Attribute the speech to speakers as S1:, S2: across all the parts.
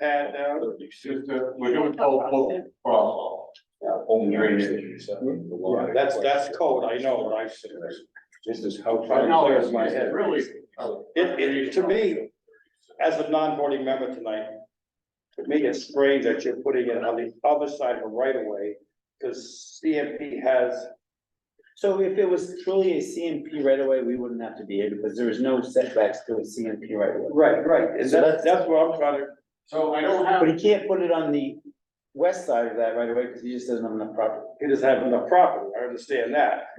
S1: pad down, it's just, uh, we're doing both, both problem. Home drainage.
S2: Yeah, That's, that's code, I know, I said, this is how.
S1: I know, it's my head, really.
S2: It, it, to me, as a non-voting member tonight, to me, it's strange that you're putting it on the other side of a right of way, because CMP has,
S3: So if it was truly a CMP right away, we wouldn't have to be here because there is no setbacks to a CMP right away.
S2: right, right, and
S3: So
S2: that's,
S3: that's-
S2: that's what I'm trying to,
S1: So I don't have,
S3: But he can't put it on the west side of that right away because he just doesn't have enough property.
S2: it is having the property, I understand that.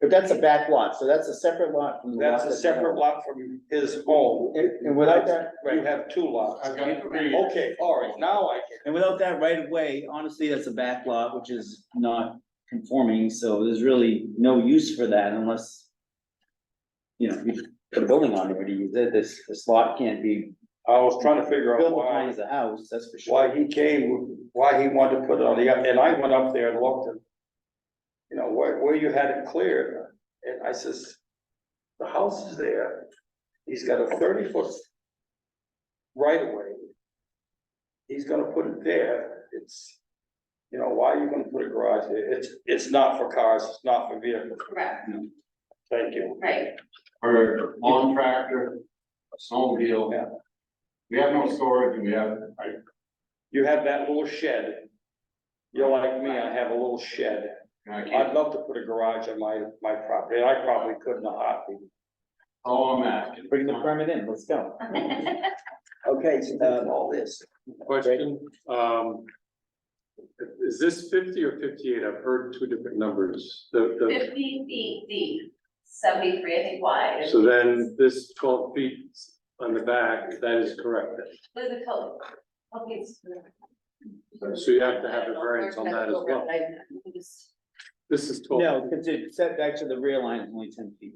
S3: But that's a back lot, so that's a separate lot from the lot.
S2: That's a separate lot from his home.
S3: And, and without that,
S2: You have two lots.
S1: I've got three.
S2: Okay, all right, now I
S3: and without that right of way, honestly, that's a back lot, which is not conforming, so there's really no use for that unless. You know, you put a building on it, but you, this, this lot can't be
S2: I was trying to figure out
S3: built
S2: why,
S3: upon as a house, that's for sure.
S2: why he came, why he wanted to put it on the, and I went up there and looked and. You know, where, where you had it cleared, and I says, the house is there, he's got a thirty foot. Right away. He's gonna put it there, it's, you know, why are you gonna put a garage there? It's, it's not for cars, it's not for vehicles,
S4: Correct,
S2: thank you.
S4: right,
S1: for a lawn tractor, a snowmobile.
S2: Yeah.
S1: We have no storage, and we have, I,
S2: You have that little shed. You're like me, I have a little shed.
S1: and I
S2: I'd
S1: can't,
S2: love to put a garage on my, my property, and I probably could in a heartbeat.
S1: all I'm asking.
S3: Bring the permit in, let's go.
S2: Okay, so that's all this.
S5: Question, um. Is this fifty or fifty-eight? I've heard two different numbers. The, the,
S4: fifty feet deep, seventy-three, I think wide.
S5: so then this twelve feet on the back, that is correct.
S4: With the color. Okay, it's-
S5: So you have to have a variance on that as well. This is twelve.
S3: No, because it set back to the rear line is only ten feet,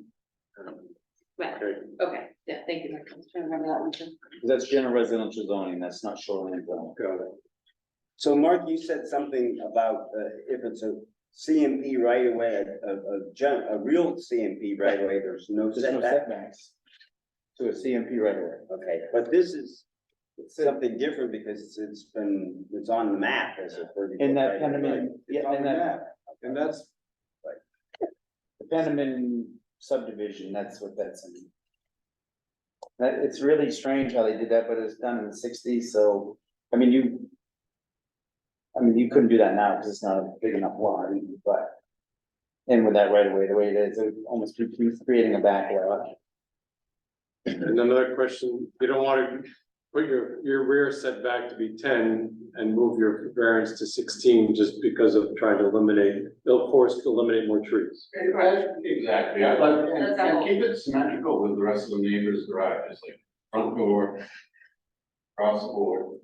S4: Right,
S5: Okay.
S4: okay, yeah, thank you, I was trying to remember that one too.
S3: 'Cause that's general residential zoning, that's not shoreline zoning.
S5: Got it.
S6: So Mark, you said something about uh, if it's a CMP right away, a, a, a gen- a real CMP right away, there's no
S3: There's no
S6: setback.
S3: setbacks to a CMP right away.
S6: Okay, but this is something different because it's- it's been, it's on the map as a thirty.
S3: In
S6: foot
S3: that
S6: right of way.
S3: Pentamin,
S6: It's
S3: yeah,
S6: on
S3: in
S6: the
S3: that,
S6: map.
S5: And that's,
S3: the Pentamin subdivision, that's what that's in. That, it's really strange how they did that, but it was done in the sixties, so, I mean, you. I mean, you couldn't do that now, because it's not a big enough lot, but. And with that right away, the way it is, it would almost be creating a back lot.
S5: and another question, you don't want to put your, your rear setback to be ten and move your variance to sixteen just because of trying to eliminate, they'll force to eliminate more trees.
S1: Exactly, I'd like,
S4: That's
S1: and-
S4: our
S1: and
S4: goal.
S1: keep it symmetrical with the rest of the neighbors' garages, like front door. Cross board,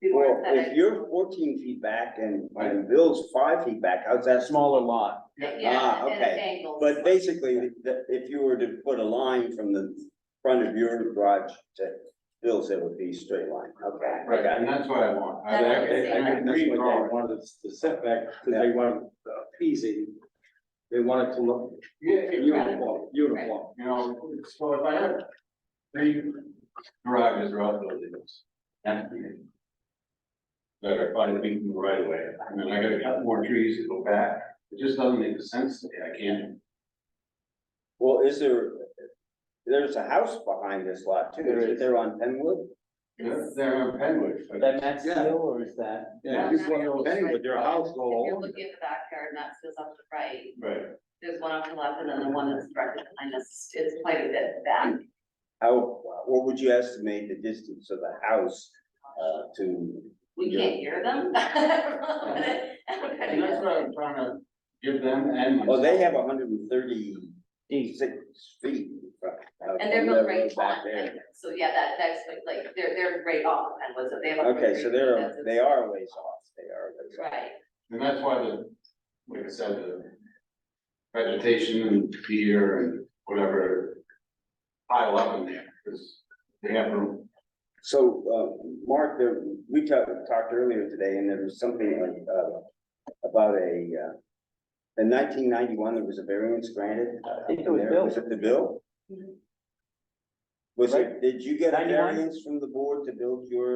S4: We
S6: Well,
S4: weren't
S6: if
S4: that-
S6: you're fourteen feet back and, and Bill's five feet back, how's that small?
S3: Smaller lot,
S4: Yeah,
S6: ah,
S4: and
S6: okay.
S4: it's angles.
S6: But basically, the, if you were to put a line from the front of your garage to Bill's, it would be straight line, okay?
S1: right, and that's what I want. I
S4: That's
S1: like-
S4: what I'm saying.
S1: I- I can
S5: That's what
S1: redraw
S5: they
S1: it.
S5: wanted us to set back, because they wanted
S2: uh,
S5: appeasing. They wanted to look
S1: Yeah, exactly.
S5: uniform, uniform.
S1: You know, so if I have three garages or outbuildings, empty. That are five feet from the right away, and then I gotta cut more trees to go back, it just doesn't make sense to me, I can't.
S6: Well, is there, there's a house behind this lot too, is it there on Penwood?
S1: They're, they're on Penwood,
S3: Is
S1: but.
S3: that Matt's
S2: Yeah.
S3: deal, or is that?
S1: Yeah, uh,
S4: it's one of those-
S2: Anyway, their house go
S4: If you're
S2: along.
S4: looking at the backyard, and that's goes up to right,
S1: Right,
S4: there's one up to left, and then the one that's directly behind us is quite a bit back.
S6: How, what would you estimate the distance of the house, uh, to?
S4: We
S6: Yeah.
S4: can't hear them.
S1: and that's what I'm trying to give them and myself.
S6: Well, oh, they have hundred and thirty-six feet. uh,
S4: And they're not right
S6: back
S4: on,
S6: there.
S4: Penwood. so yeah, that, that's like- like, they're, they're right off and was they have. a
S6: Okay, so
S4: great
S6: they're,
S4: defensive-
S6: they are a ways off, they are a ways off.
S4: Right,
S1: And that's why the, like I said, the vegetation and deer and whatever pile up in there, because they have room.
S6: So, uh, Mark, there, we talked, talked earlier today and there was something like, uh, about a, uh, in nineteen ninety-one, there was a variance granted.
S3: I think it was
S6: there.
S3: Bill.
S6: Was it the bill?
S4: Mhm.
S6: Was it, did you get a
S3: Ninety-one?
S6: variance from the board to build your